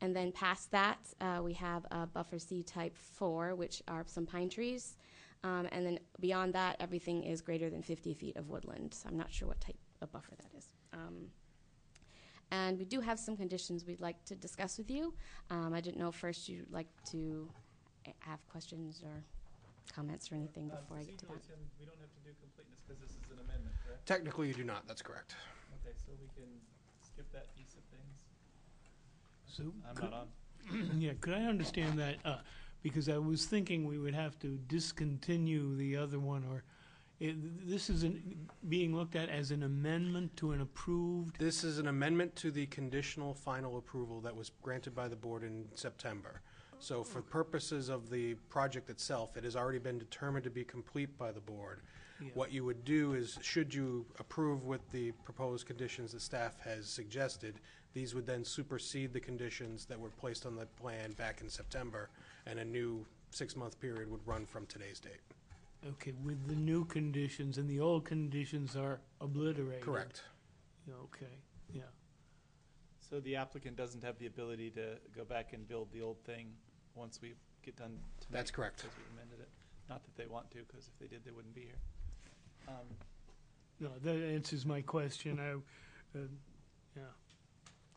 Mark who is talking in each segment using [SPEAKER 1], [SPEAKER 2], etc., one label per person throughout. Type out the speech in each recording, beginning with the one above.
[SPEAKER 1] And then past that, uh, we have a buffer C type four, which are some pine trees. Um, and then beyond that, everything is greater than 50 feet of woodland. So I'm not sure what type of buffer that is. Um, and we do have some conditions we'd like to discuss with you. Um, I didn't know first you'd like to a- have questions or comments or anything
[SPEAKER 2] Um,
[SPEAKER 1] before I get to that.
[SPEAKER 2] procedurally, Tim, we don't have to do completeness because this is an amendment, correct?
[SPEAKER 3] Technically, you do not. That's correct.
[SPEAKER 2] Okay, so we can skip that piece of things.
[SPEAKER 4] So,
[SPEAKER 2] I'm
[SPEAKER 4] could-
[SPEAKER 2] not on.
[SPEAKER 4] yeah, could I understand that? Uh, because I was thinking we would have to discontinue the other one, or i this is an, being looked at as an amendment to an approved.
[SPEAKER 3] This is an amendment to the conditional final approval that was granted by the board in September. So for purposes of the project itself, it has already been determined to be complete by the board.
[SPEAKER 4] Yeah.
[SPEAKER 3] What you would do is, should you approve with the proposed conditions that staff has suggested, these would then supersede the conditions that were placed on the plan back in September, and a new six-month period would run from today's date.
[SPEAKER 4] Okay, with the new conditions and the old conditions are obliterated.
[SPEAKER 3] Correct.
[SPEAKER 4] Okay. Yeah.
[SPEAKER 2] So the applicant doesn't have the ability to go back and build the old thing once we get done tonight?
[SPEAKER 3] That's correct.
[SPEAKER 2] Because we amended it. Not that they want to, because if they did, they wouldn't be here. Um,
[SPEAKER 4] No, that answers my question. I. Uh, yeah.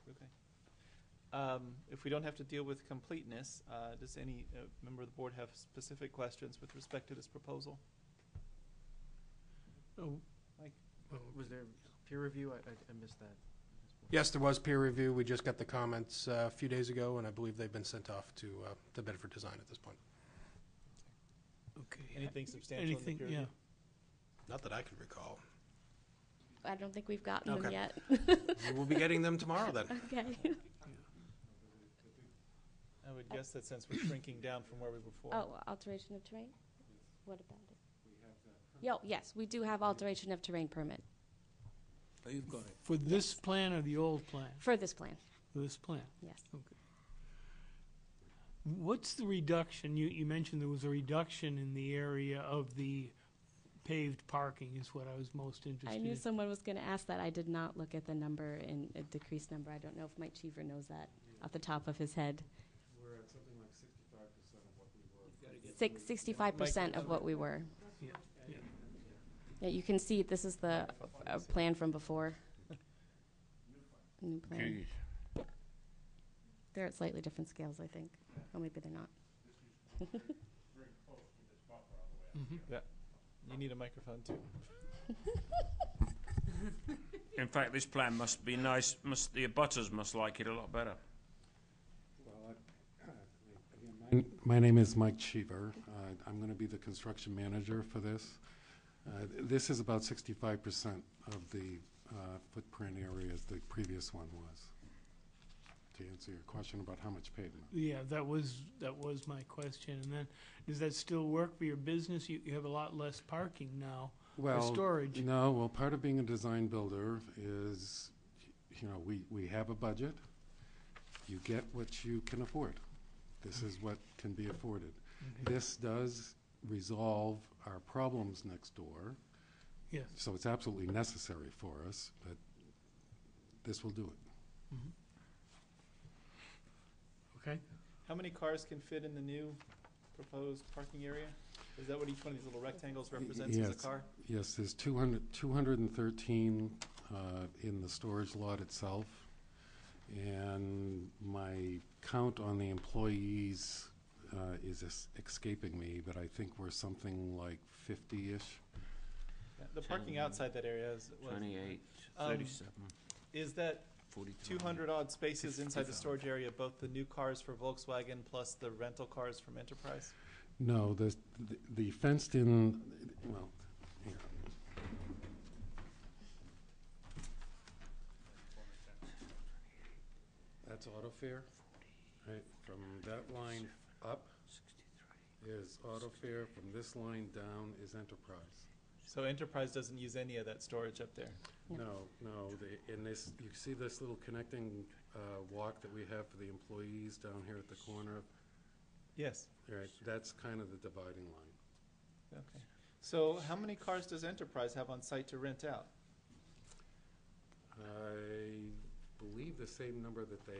[SPEAKER 2] Okay. Um, If we don't have to deal with completeness, uh, does any uh, member of the board have specific questions with respect to this proposal?
[SPEAKER 4] Oh.
[SPEAKER 2] Mike?
[SPEAKER 4] oh,
[SPEAKER 5] Was there peer review? I, I I missed that.
[SPEAKER 3] Yes, there was peer review. We just got the comments uh, a few days ago, and I believe they've been sent off to uh, to Bedford Design at this point.
[SPEAKER 4] okay.
[SPEAKER 2] Anything substantial in the
[SPEAKER 4] Anything?
[SPEAKER 2] peer
[SPEAKER 4] Yeah.
[SPEAKER 2] review?
[SPEAKER 3] Not that I can recall.
[SPEAKER 1] I don't think we've gotten them
[SPEAKER 3] Okay.
[SPEAKER 1] yet.
[SPEAKER 3] We will be getting them tomorrow then.
[SPEAKER 1] Okay.
[SPEAKER 2] I would guess that since we're shrinking down from where we were before.
[SPEAKER 1] Oh, alteration of terrain? What about it? Yo, yes, we do have alteration of terrain permit
[SPEAKER 6] You've got it.
[SPEAKER 4] For this plan or the old plan?
[SPEAKER 1] for this plan,
[SPEAKER 4] This plan.
[SPEAKER 1] yes.
[SPEAKER 4] What's the reduction? You, you mentioned there was a reduction in the area of the paved parking is what I was most
[SPEAKER 1] I
[SPEAKER 4] interested
[SPEAKER 1] knew
[SPEAKER 4] in.
[SPEAKER 1] someone was going to ask that. I did not look at the number and a decreased number. I don't know if Mike Cheever knows that off the top of his head.
[SPEAKER 6] We're at something like sixty-five percent of what we were.
[SPEAKER 1] Six, 65% of what we were.
[SPEAKER 4] Yeah, yeah.
[SPEAKER 1] Yeah, you can see this is the uh, plan from before. New plan. They're at slightly different scales, I think. Or maybe they're not.
[SPEAKER 2] You need a microphone too.
[SPEAKER 7] In fact, this plan must be nice. Must the abutters must like it a lot better.
[SPEAKER 6] Well, I- again, my- My name is Mike Cheever. Uh, I'm going to be the construction manager for this. Uh, th- This is about sixty-five percent of the uh, footprint area as the previous one was. To answer your question about how much pavement.
[SPEAKER 4] Yeah, that was, that was my question. And then, does that still work for your business? You, you have a lot less parking now for
[SPEAKER 6] Well,
[SPEAKER 4] storage.
[SPEAKER 6] No, well, part of being a design builder is, you know, we, we have a budget. You get what you can afford. This is what can be afforded.
[SPEAKER 4] Okay.
[SPEAKER 6] This does resolve our problems next door,
[SPEAKER 4] Yes,
[SPEAKER 6] so it's absolutely necessary for us, but this will do it.
[SPEAKER 4] okay.
[SPEAKER 2] How many cars can fit in the new proposed parking area? Is that what each one of these little rectangles represents as a
[SPEAKER 6] yes.
[SPEAKER 2] car?
[SPEAKER 6] Yes, there's 200, 213 uh, in the storage lot itself, and my count on the employees uh, is es- escaping me, but I think we're something like 50-ish.
[SPEAKER 2] Yeah, The parking outside that area is, was-
[SPEAKER 7] 28,
[SPEAKER 2] Um,
[SPEAKER 7] 37,
[SPEAKER 2] is that
[SPEAKER 7] 42.
[SPEAKER 2] two hundred odd spaces inside the storage area, both the new cars for Volkswagen plus the rental cars from Enterprise?
[SPEAKER 6] No, the, the fenced-in, well, hang on. That's auto fare, right, from that line up is auto fare, from this line down is enterprise.
[SPEAKER 2] So Enterprise doesn't use any of that storage up there?
[SPEAKER 6] No, no, the, in this, you see this little connecting, uh, walk that we have for the employees down here at the corner?
[SPEAKER 2] Yes,
[SPEAKER 6] Right, that's kind of the dividing line.
[SPEAKER 2] okay. So how many cars does Enterprise have on site to rent out?
[SPEAKER 6] I believe the same number that they